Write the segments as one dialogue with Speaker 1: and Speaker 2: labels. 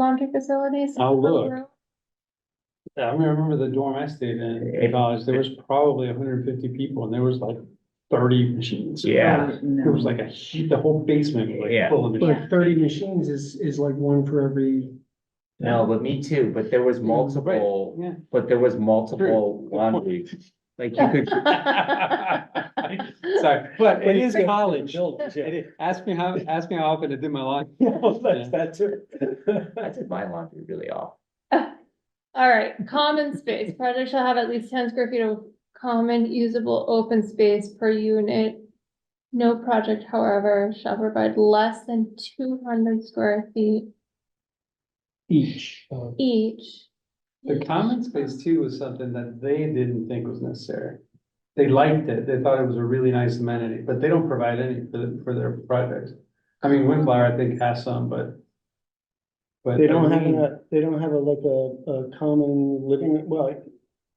Speaker 1: laundry facilities?
Speaker 2: I'll look. Yeah, I remember the dorm I stayed in, in college, there was probably hundred and fifty people and there was like thirty machines.
Speaker 3: Yeah.
Speaker 2: It was like a, hu- the whole basement was
Speaker 3: Yeah.
Speaker 2: like full of machines.
Speaker 1: Yeah.
Speaker 4: Like Oh, thirty machines is, is like one for every,
Speaker 3: No, but me too, but there was multiple,
Speaker 2: Yeah.
Speaker 3: but there was multiple laundry, like you could,
Speaker 2: Sorry, but
Speaker 4: But
Speaker 2: it
Speaker 4: you
Speaker 2: is
Speaker 4: think-
Speaker 2: college.
Speaker 4: Buildings, yeah.
Speaker 2: It is- Ask me how, ask me how often I did my laundry.
Speaker 4: that's that too.
Speaker 3: I did my laundry really off.
Speaker 1: All right, common space, project shall have at least ten square feet of common usable open space per unit. No project, however, shall provide less than two hundred square feet
Speaker 4: Each. uh,
Speaker 1: each.
Speaker 2: The common space too was something that they didn't think was necessary. They liked it, they thought it was a really nice amenity, but they don't provide any for, the- for their projects. I mean, Windflower, I think, has some, but. But.
Speaker 4: They don't have,
Speaker 2: Irvine-
Speaker 4: a. they don't have a, like a, a common living, well,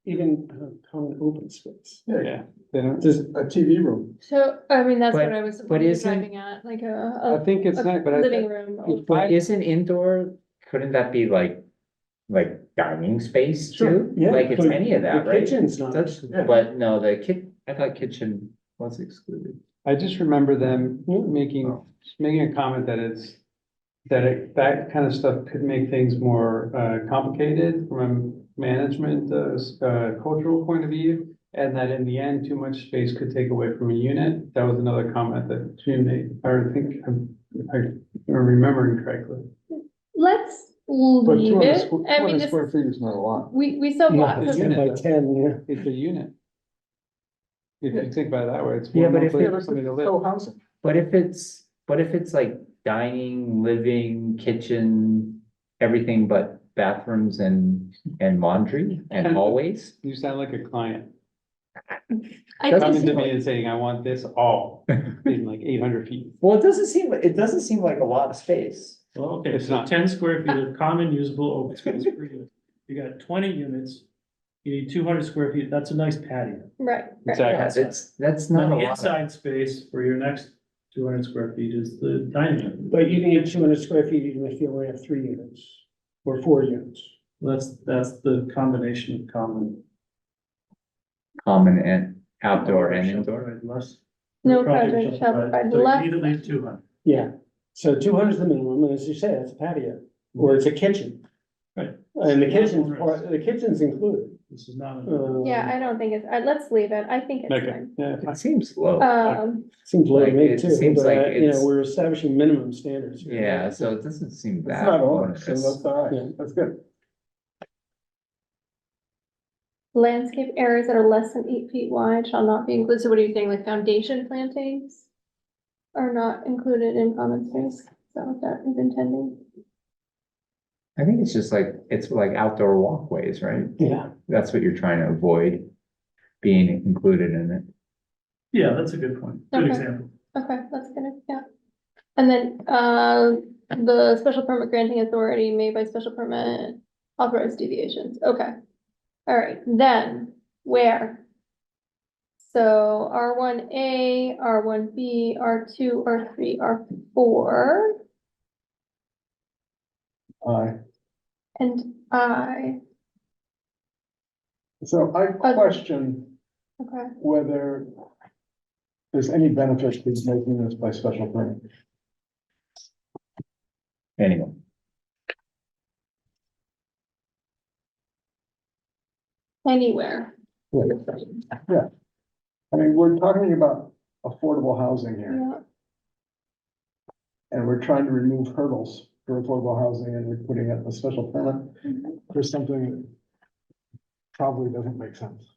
Speaker 4: even a common open space.
Speaker 2: Yeah, they don't,
Speaker 4: Just a TV room.
Speaker 1: So, I mean, that's
Speaker 3: But-
Speaker 1: what I was
Speaker 3: but isn't-
Speaker 1: driving at, like
Speaker 2: I
Speaker 1: a,
Speaker 2: think
Speaker 1: a,
Speaker 2: it's
Speaker 1: a
Speaker 2: not, but I,
Speaker 1: living room.
Speaker 2: If I-
Speaker 3: But isn't indoor, couldn't that be like, like dining space too?
Speaker 4: Yeah,
Speaker 3: Like it's
Speaker 4: but
Speaker 3: any of that,
Speaker 4: the
Speaker 3: right?
Speaker 4: kitchen's not,
Speaker 3: That's-
Speaker 4: yeah.
Speaker 3: But no, the kit, I thought kitchen was excluded.
Speaker 2: I just remember them
Speaker 4: Yeah.
Speaker 2: making, making a comment that it's. That it, that kind of stuff could make things more, uh, complicated from a management, uh, s- uh, cultural point of view. And that in the end, too much space could take away from a unit. That was another comment that Jim made, or I think, I'm- I am remembering correctly.
Speaker 1: Let's leave it. I mean, this,
Speaker 5: square feet is not a lot.
Speaker 1: we, we still
Speaker 4: Not
Speaker 1: got
Speaker 2: the
Speaker 4: the
Speaker 1: some
Speaker 4: ten by ten, yeah.
Speaker 2: It's a unit. If you think about it that way, it's.
Speaker 3: Yeah,
Speaker 2: one
Speaker 3: but
Speaker 2: more
Speaker 3: if
Speaker 2: place
Speaker 3: it
Speaker 2: for
Speaker 3: was
Speaker 2: somebody to live.
Speaker 5: housing.
Speaker 3: But if it's, but if it's like dining, living, kitchen, everything but bathrooms and, and laundry and hallways?
Speaker 2: You sound like a client.
Speaker 1: I just-
Speaker 3: That's
Speaker 2: coming to me and saying, I want this all in like eight hundred feet.
Speaker 3: Well, it doesn't seem, it doesn't seem like a lot of space.
Speaker 6: Well, okay,
Speaker 2: It's
Speaker 6: so
Speaker 2: not.
Speaker 6: ten square feet of common usable open space per unit. You got twenty units, you need two hundred square feet, that's a nice patio.
Speaker 1: Right, right.
Speaker 2: Exactly.
Speaker 3: That's, that's
Speaker 6: Then
Speaker 3: not a
Speaker 6: the
Speaker 3: lot. of-
Speaker 6: inside space for your next two hundred square feet is the dining room.
Speaker 4: But you need two hundred square feet even if you only have three units or four units.
Speaker 6: That's, that's the combination of common.
Speaker 3: Common and outdoor and indoor.
Speaker 6: Less-
Speaker 1: No project
Speaker 6: project
Speaker 1: shall provide less
Speaker 6: So you need at least two hundred.
Speaker 4: Yeah, so two hundred is the minimum, and as you say, it's a patio, or it's a kitchen.
Speaker 6: Right.
Speaker 4: And the kitchen, the kitchen's included.
Speaker 6: This is not, a-
Speaker 4: um,
Speaker 1: Yeah, I don't think it's, I, let's leave it, I think it's
Speaker 2: Okay.
Speaker 1: fine.
Speaker 2: Yeah,
Speaker 3: It seems low.
Speaker 1: Um,
Speaker 4: Seems low to
Speaker 3: Like,
Speaker 4: me
Speaker 3: it
Speaker 4: too,
Speaker 3: seems
Speaker 4: but,
Speaker 3: like
Speaker 4: I- you know,
Speaker 3: it's-
Speaker 4: we're establishing minimum standards. here.
Speaker 3: Yeah, so it doesn't seem
Speaker 5: It's
Speaker 3: that.
Speaker 5: not on, so
Speaker 3: onerous.
Speaker 5: that's all
Speaker 4: Yeah.
Speaker 5: right, that's good.
Speaker 1: landscape areas that are less than eight feet wide shall not be included, so what are you saying, like foundation plantings? Are not included in common space, is that what that is intending?
Speaker 3: I think it's just like, it's like outdoor walkways, right?
Speaker 4: Yeah,
Speaker 3: That's what you're trying to avoid being included in it.
Speaker 6: yeah, that's a good point, good
Speaker 1: Okay.
Speaker 6: example.
Speaker 1: Okay, that's gonna, yeah. And then, uh, the special permit granting authority made by special permit authorized deviations, okay. All right, then, where? So R one A, R one B, R two, R three, R four,
Speaker 4: Uh,
Speaker 5: Aye.
Speaker 1: and I,
Speaker 5: So I question
Speaker 1: okay,
Speaker 5: whether there's any benefit to making this by special permit.
Speaker 3: Anyway.
Speaker 1: anywhere.
Speaker 5: I mean, we're talking about affordable housing here,
Speaker 1: Yeah,
Speaker 5: and we're trying to remove hurdles for affordable housing, and we're putting up a special permit
Speaker 1: Mhm.
Speaker 5: for something that probably doesn't make sense.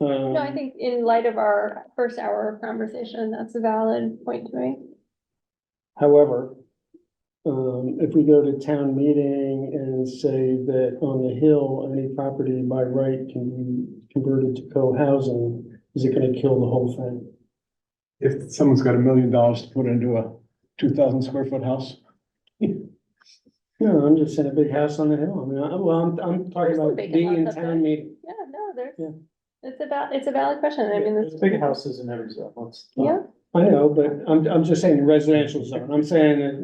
Speaker 4: um,
Speaker 5: Um,
Speaker 1: No, I think in light of our first hour of conversation, that's a valid point to make.
Speaker 4: however, um, if we go to town meeting and say that on the hill, any property by right can be converted to co-housing, is it gonna kill the whole thing?
Speaker 5: If someone's got a million dollars to put into a two thousand square foot house.
Speaker 4: No, I'm just in a big house on the hill. I mean, I, well, I'm, I'm talking
Speaker 1: There's some
Speaker 4: about
Speaker 1: big
Speaker 4: being in
Speaker 1: houses up there.
Speaker 4: town meeting.
Speaker 1: Yeah, no,
Speaker 4: Yeah.
Speaker 1: there's, it's about, it's a valid question, I mean,
Speaker 6: There's big houses in every zone, let's.
Speaker 1: yeah,
Speaker 4: I know, but I'm, I'm just saying residential zone. I'm saying that